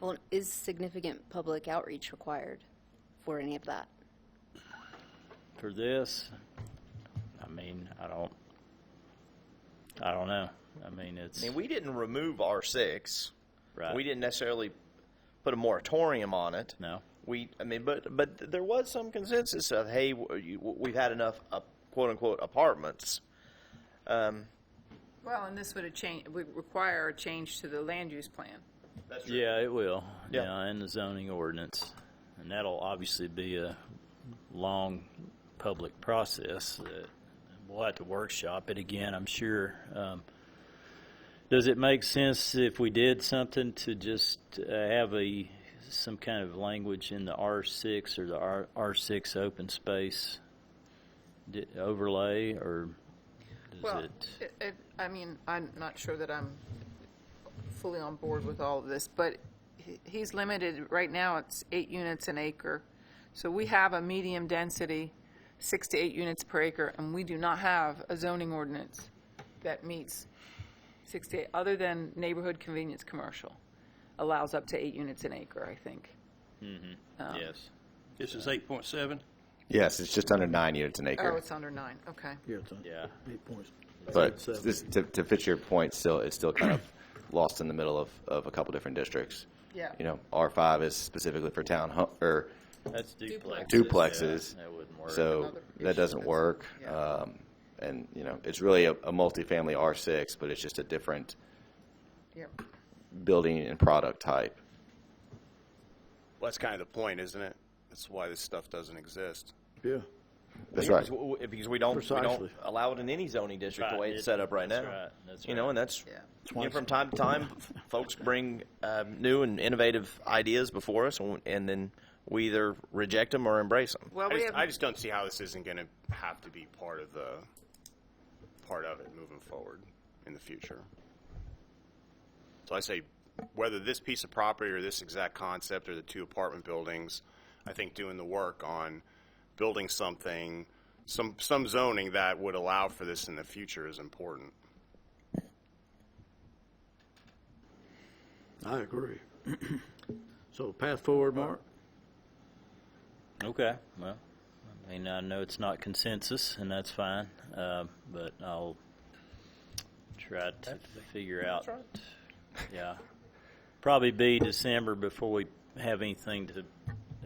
Well, is significant public outreach required for any of that? for this, I mean, I don't, I don't know. I mean, it's I mean, we didn't remove R6. right. We didn't necessarily put a moratorium on it. No. We, I mean, but but there was some consensus of, hey, w- you- w- we've had enough uh, quote unquote apartments. Um, Well, and this would have changed, would require a change to the land use plan. That's Yeah, it will. Yeah. Yeah, and the zoning ordinance, and that'll obviously be a long public process. That we'll have to workshop it again. I'm sure. Um, does it make sense if we did something to just uh, have a some kind of language in the R6 or the R, R6 open space di- overlay, or does Well, it? it- it, I mean, I'm not sure that I'm fully on board with all of this, but he- he's limited, right now it's eight units an acre. So we have a medium density, six to eight units per acre, and we do not have a zoning ordinance that meets six to eight, other than neighborhood convenience commercial allows up to eight units an acre, I think. yes. This is eight point seven? Yes, it's just under nine units an Oh, acre. it's under nine, okay. Yeah, it's on. Yeah. Eight points. But this, to, to fit your point, still, it's still kind of lost in the middle of, of a couple different districts. Yeah. You know, R five is specifically for town, hu- or That's duplexes. duplexes. Yeah, that wouldn't work. So Another issue that doesn't that's- work. yeah. Um, and, you know, it's really a, a multifamily R six, but it's just a different Yep. building and product type. Well, that's kind of the point, isn't it? That's why this stuff doesn't exist. Yeah. That's because right. w- w- Because we don't, we don't Precisely. allow it in any zoning district the Right, way it's it- set up right now. that's right, that's you know, right. and that's Yeah. you know, from time to time, f- folks bring um, new and innovative ideas before us, and, and then we either reject them or embrace them. Well, I we just, I have, just don't see how this isn't going to have to be part of the part of it moving forward in the future. So I say, whether this piece of property or this exact concept or the two apartment buildings, I think doing the work on building something, some some zoning that would allow for this in the future is important. I agree. So path forward, Mark? Okay, well, I mean, I know it's not consensus, and that's fine, uh, but I'll try to figure out. Yeah, probably be December before we have anything to,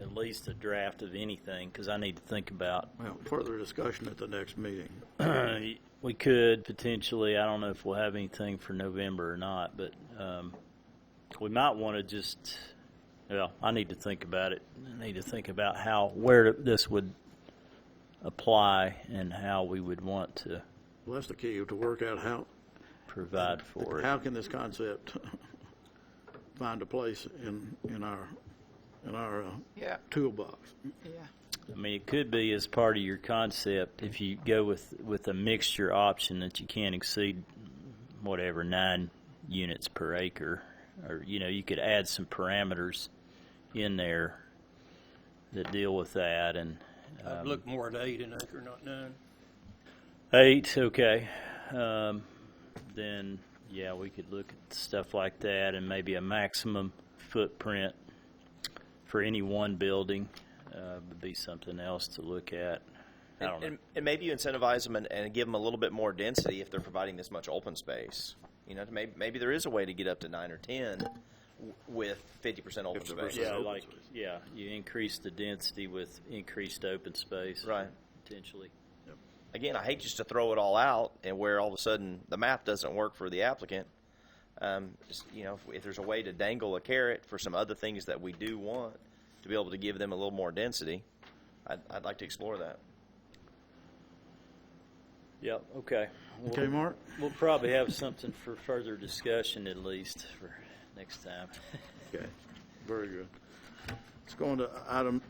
at least a draft of anything, because I need to think about Well, further discussion at the next meeting. Uh, we could potentially. I don't know if we'll have anything for November or not, but um, we might want to just. Well, I need to think about it. I need to think about how where this would apply and how we would want to Well, that's the key, to work out how, provide for it. how can this concept find a place in, in our, in our uh, yeah, toolbox? yeah. I mean, it could be as part of your concept if you go with with a mixture option that you can't exceed whatever nine units per acre, or you know, you could add some parameters in there that deal with that. And um, I'd look more at eight an acre, not nine. eight, okay, um, then yeah, we could look at stuff like that, and maybe a maximum footprint for any one building uh, would be something else to look at. I don't And, know. and, and maybe you incentivize them and, and give them a little bit more density if they're providing this much open space. You know, maybe, maybe there is a way to get up to nine or ten w- with fifty percent open space. Yeah, like, yeah, you increase the density with increased open space. Right. Potentially. Again, I hate just to throw it all out and where all of a sudden the math doesn't work for the applicant. Um, just, you know, if, if there's a way to dangle a carrot for some other things that we do want to be able to give them a little more density, I'd, I'd like to explore that. Yep, okay. We'll- Okay, Mark? We'll probably have something for further discussion at least for next time. Okay, very good. Let's go on to item